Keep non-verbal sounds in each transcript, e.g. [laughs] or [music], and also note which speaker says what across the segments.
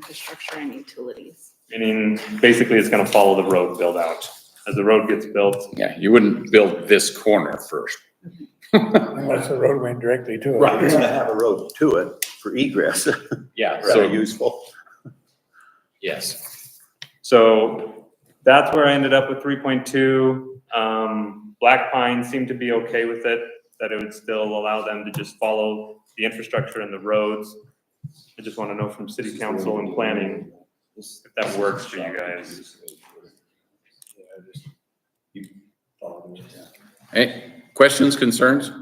Speaker 1: infrastructure and utilities.
Speaker 2: Meaning, basically, it's gonna follow the road build out. As the road gets built,
Speaker 3: Yeah, you wouldn't build this corner first.
Speaker 4: Unless the road went directly to it.
Speaker 5: Right, it's gonna have a road to it for egress, [laughs]
Speaker 3: Yeah,
Speaker 5: rather
Speaker 3: so,
Speaker 5: useful.
Speaker 3: yes.
Speaker 2: so that's where I ended up with three point two. Um, Black Pine seemed to be okay with it, that it would still allow them to just follow the infrastructure and the roads. I just wanna know from city council and planning if that works for you guys.
Speaker 3: Hey, questions, concerns?
Speaker 2: What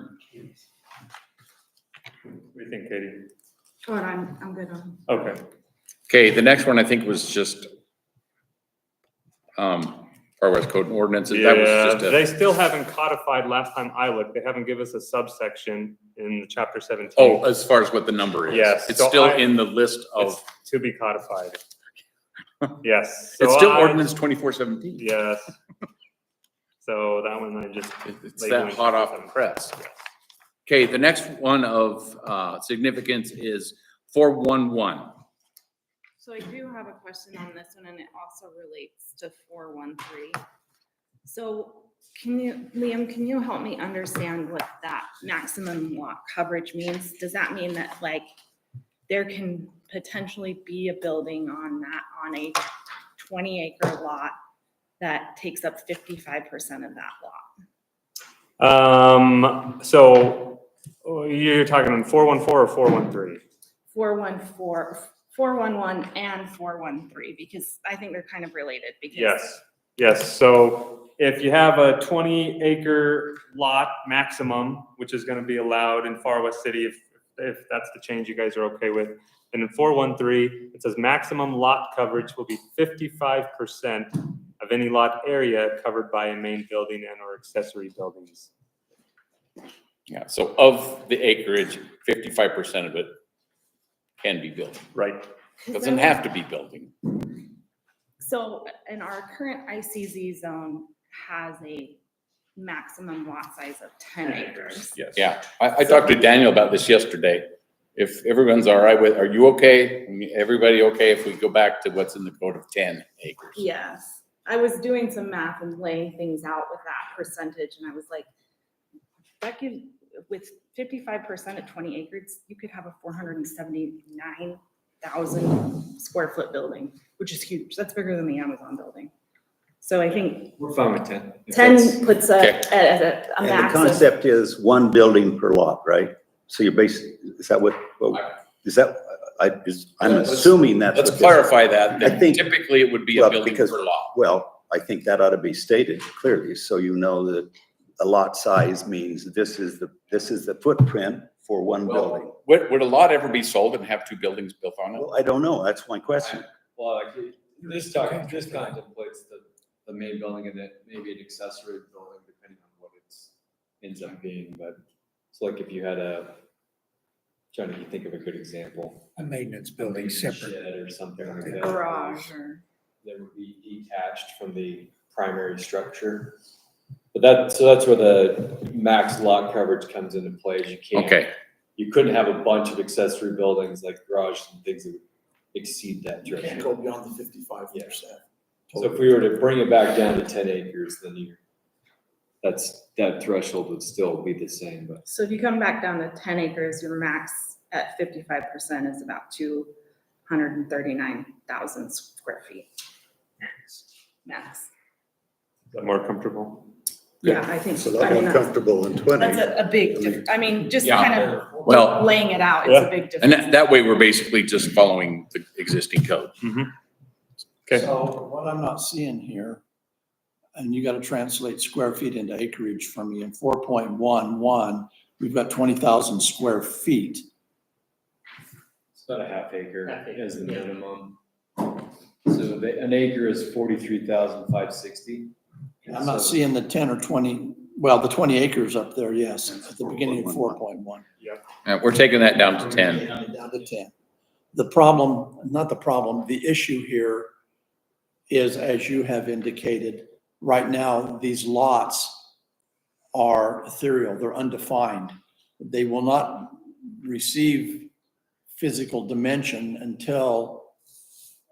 Speaker 2: do you think, Katie?
Speaker 1: But I'm, I'm good on.
Speaker 2: Okay,
Speaker 3: Okay, the next one I think was just um, Far West Code and Ordinances. That
Speaker 2: yeah,
Speaker 3: was just a,
Speaker 2: they still haven't codified last time I looked, they haven't give us a subsection in the chapter seventeen.
Speaker 3: oh, as far as what the number is.
Speaker 2: Yes,
Speaker 3: It's
Speaker 2: so
Speaker 3: still
Speaker 2: I-
Speaker 3: in the list of,
Speaker 2: It's to be
Speaker 3: [laughs]
Speaker 2: codified. Yes.
Speaker 3: it's
Speaker 2: so
Speaker 3: still
Speaker 2: I-
Speaker 3: ordinance twenty-four seventeen.
Speaker 2: Yes. So that one I just,
Speaker 3: It's that hot off the press. Okay, the next one of uh, significance is four-one-one.
Speaker 1: So I do have a question on this one, and it also relates to four one three. So can you, Liam, can you help me understand what that maximum lot coverage means? Does that mean that like there can potentially be a building on that, on a twenty acre lot that takes up fifty-five percent of that lot?
Speaker 2: Um, so oh, you're talking on four one four or four one three?
Speaker 1: Four one four, four one one and four one three, because I think they're kind of related because
Speaker 2: Yes, yes. So if you have a twenty acre lot maximum, which is gonna be allowed in Far West City, if, if that's the change you guys are okay with. And in four one three, it says maximum lot coverage will be fifty-five percent of any lot area covered by a main building and or accessory buildings.
Speaker 3: Yeah, so of the acreage, fifty-five percent of it can be building.
Speaker 2: Right.
Speaker 3: Doesn't have to be building.
Speaker 1: So in our current ICZ zone has a maximum lot size of ten acres.
Speaker 2: Yes.
Speaker 3: Yeah, I, I talked to Daniel about this yesterday. If everyone's all right with, are you okay? I mean, Everybody okay if we go back to what's in the code of ten acres?
Speaker 1: Yes, I was doing some math and laying things out with that percentage and I was like, that could, with fifty-five percent at twenty acres, you could have a four hundred and seventy-nine thousand square foot building, which is huge. That's bigger than the Amazon building. So I think
Speaker 6: We're fine with ten. If that's-
Speaker 1: ten puts a,
Speaker 3: Okay.
Speaker 1: a, a- a
Speaker 5: And the
Speaker 1: max of-
Speaker 5: concept is one building per lot, right? So you're basically, is that what, what- is that, I, is, I'm
Speaker 3: Let's-
Speaker 5: assuming that's.
Speaker 3: Let's
Speaker 5: what this is.
Speaker 3: clarify that,
Speaker 5: I
Speaker 3: that
Speaker 5: think-
Speaker 3: typically it would be a
Speaker 5: well,
Speaker 3: building
Speaker 5: because-
Speaker 3: per lot.
Speaker 5: Well, I think that ought to be stated clearly, so you know that a lot size means this is the, this is the footprint for one building.
Speaker 3: Well, Would, would a lot ever be sold and have two buildings built on it?
Speaker 5: Well, I don't know, that's my question.
Speaker 6: Well, like, this talk, this contemplates the, the main building and then maybe an accessory building depending on what it's ends up being, but it's like if you had a, trying to think of a good example.
Speaker 4: A maintenance building
Speaker 6: Maybe a
Speaker 4: separate.
Speaker 6: Shed or something like that.
Speaker 1: garage or.
Speaker 6: That would be detached from the primary structure. But that, so that's where the max lot coverage comes into play, is you can't.
Speaker 3: Okay,
Speaker 6: you couldn't have a bunch of accessory buildings like garages and things that would exceed that
Speaker 7: You can't
Speaker 6: threshold.
Speaker 7: go beyond the fifty-five percent.
Speaker 6: So if we were to bring it back down to ten acres, then you, that's, that threshold would still be the same, but.
Speaker 1: So if you come back down to ten acres, your max at fifty-five percent is about two hundred and thirty-nine thousand square feet. Max.
Speaker 2: More comfortable?
Speaker 1: Yeah, I think,
Speaker 7: So
Speaker 1: I
Speaker 7: that
Speaker 1: mean,
Speaker 7: one
Speaker 1: that's,
Speaker 7: comfortable in twenty.
Speaker 1: that's a, a big, diff- I mean, just
Speaker 3: Yeah.
Speaker 1: kind of
Speaker 3: well,
Speaker 1: laying it out, it's
Speaker 2: Yeah.
Speaker 1: a big
Speaker 3: and
Speaker 1: difference.
Speaker 3: that, that way we're basically just following the existing code.
Speaker 2: Okay.
Speaker 7: So what I'm not seeing here, and you gotta translate square feet into acreage for me, in four point one one, we've got twenty thousand square feet.
Speaker 6: It's about a half acre
Speaker 8: Half acre,
Speaker 6: as the
Speaker 8: yeah.
Speaker 6: minimum. So the, an acre is forty-three thousand five sixty.
Speaker 7: I'm not seeing the ten or twenty, well, the twenty acres up there, yes, at the beginning of four point one.
Speaker 3: Uh, we're taking that down to ten.
Speaker 7: Down to ten. The problem, not the problem, the issue here is, as you have indicated, right now, these lots are ethereal, they're undefined. They will not receive physical dimension until